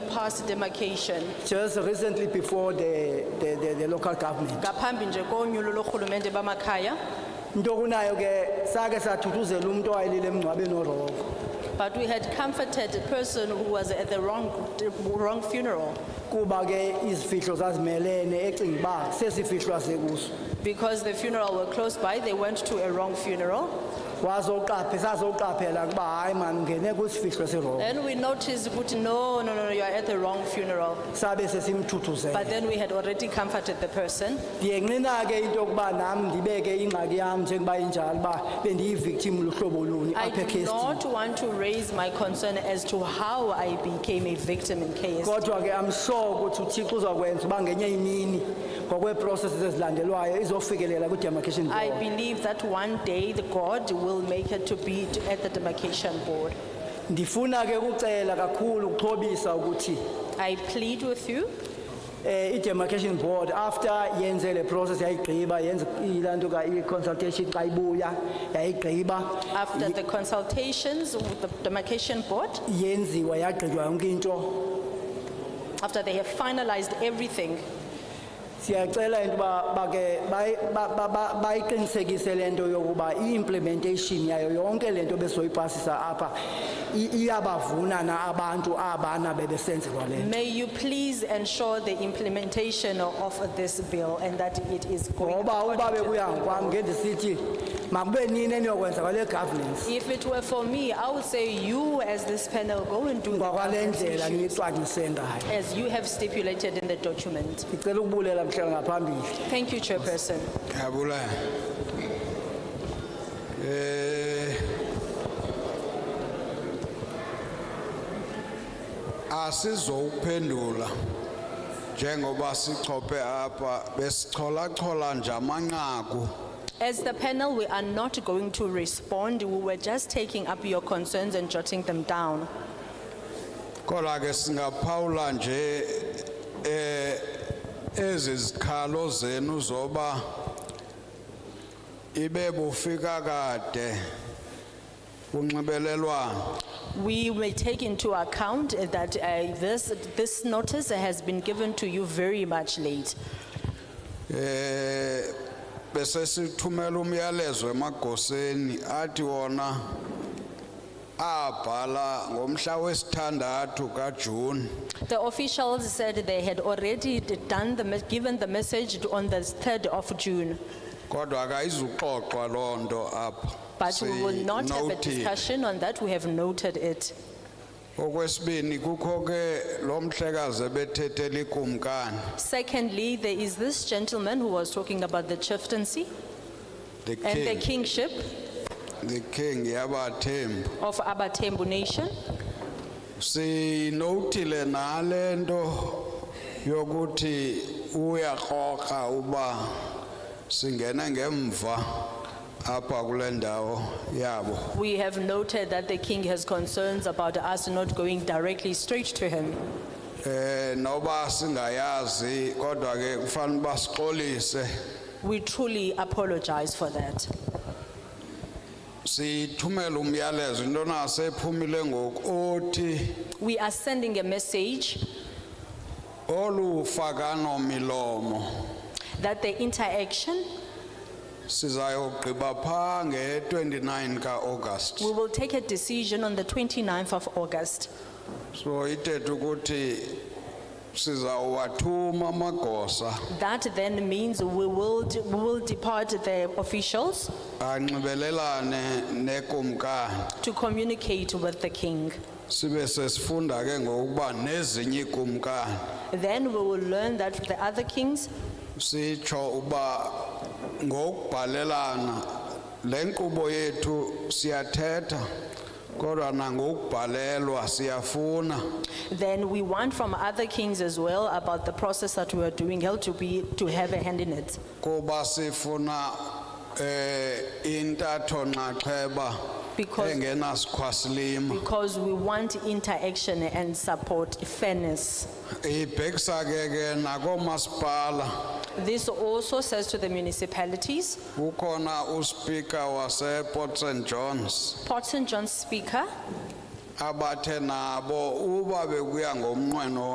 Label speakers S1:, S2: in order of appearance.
S1: past demarcation
S2: just recently before the, the, the, the local government.
S1: ngaphambi nje konyulo lorhulumente bamakhaya
S2: Into kunayo ke sake sathuthuzela umuntu owayelile emngcwabeni oroko.
S1: but we had comforted a person who was at the wrong, wrong funeral
S2: Kuba ke izifihlo zazimelene ecinga uba sesifihlwa sekuso.
S1: because the funeral were close by they went to a wrong funeral
S2: Wazoqaphe sazoqaphela kuba hayi man ngene kwisifihlo seroko.
S1: then we noticed ukuthi no no no no you are at the wrong funeral
S2: Sabe sesimthuthuzela.
S1: but then we had already comforted the person
S2: Ndiyenqina ke into yokuba nami ndibeke ingxaki yami njengoba injalo uba bendiyivictim luhlobo luni
S1: I
S2: apha
S1: do
S2: ekhestini.
S1: not want to raise my concern as to how I became a victim in KSD.
S2: kodwa ke i'm sure ukuthi uthixo uzakwenza uba ngenye imini ngokweeprocesses ezilandelwayo izofikelela kwi-demarcation
S1: I
S2: board
S1: believe that one day the God will make it to be to- at the demarcation board.
S2: ndifuna ke ukucela kakhulu ukuxhobisa ukuthi
S1: I plead with you
S2: um i-demarcation board after yenze le process yayigqiba yenze ilaa nto ka i-consultation xa ibuya yayigqiba
S1: after the consultations with the demarcation board,
S2: yenziwa yagqitywa yonke into
S1: after they have finalized everything,
S2: siyacela into uba bake bayi- ba- ba- ba- bayiqinisekise le nto yokuba i-implementation yayo yonke le nto besoyipasisa apha i- iyabavuna na abantu abana bebesenzelwa le nto
S1: may you please ensure the implementation of this bill and that it is going.
S2: ngoba uba
S1: according to
S2: bekuya
S1: the will.
S2: ngokwam ngendisithi makube nini eniyokwenza kwale governance
S1: If it were for me, I would say you as this panel go and do the
S2: kwakwale
S1: governance
S2: ndlela
S1: issue
S2: niyicwangcise ngayo
S1: as you have stipulated in the document.
S2: ndicela ukubulela mhla ngaphambili
S1: Thank you, Chairperson.
S3: yabula eh asizowuphendula njengoba sichophe apha besichola chola nje amanqaku
S1: As the panel, we are not going to respond. We were just taking up your concerns and jotting them down.
S3: kodwa ke singaphawula nje eh ezi zikhalo zenu zoba ibe bufika kade unxibelelwano
S1: We will take into account that uh, this, this notice has been given to you very much late.
S3: eh bese sithumela umyalezo emagoseni athi wona abhala ngomhla wesithandathu kaJune
S1: The officials said they had already done the, mes- given the message on the 3rd of June,
S3: kodwa akayizuxoxwa lonto apha
S1: but we will not have a
S3: Sinothile.
S1: discussion on that. We have noted it.
S3: okwesibini kukho ke lo mhlekazi ebethethela ikumkani
S1: Secondly, there is this gentleman who was talking about the chieftaincy
S3: the
S1: and the
S3: king
S1: kingship
S3: the king yabathembu
S1: of Abatembu Nation.
S3: sinothile nalento yokuthi uyakhoka uba singena ngemva apha kule ndawo yabo
S1: We have noted that the king has concerns about us not going directly straight to him.
S3: eh noba singayazi kodwa ke kufanele basixolise
S1: We truly apologize for that.
S3: sithumele umyalezo into nasephumile ngoku othi
S1: We are sending a message
S3: olufakano milomo
S1: that the interaction,
S3: sizayogqiba pha nge-29 kaAugust
S1: we will take a decision on the 29th of August.
S3: So itethe ukuthi sizawuwathuma amagosa
S1: That then means we will, we will depart the officials
S3: anxibelelane nekumkani
S1: to communicate with the king.
S3: sibe sesifunda ke ngokuba nezinye ikumkani
S1: Then we will learn that the other kings
S3: sitsho uba ngokubhalelana le nkqubo yethu siyathetha kodwa nangokubhalelwa siyafuna
S1: Then we want from other kings as well about the process that we are doing, held to be, to have a hand in it.
S3: kuba sifuna eh intatho nxaxheba
S1: Because,
S3: engenasikhwasilima
S1: because we want interaction and support, fairness.
S3: ibhekisa ke ke nakomasipala
S1: This also says to the municipalities,
S3: ukhona uspika waseport st johns
S1: Port St. John's Speaker,
S3: abathe nabo uba bekuya ngomnqweno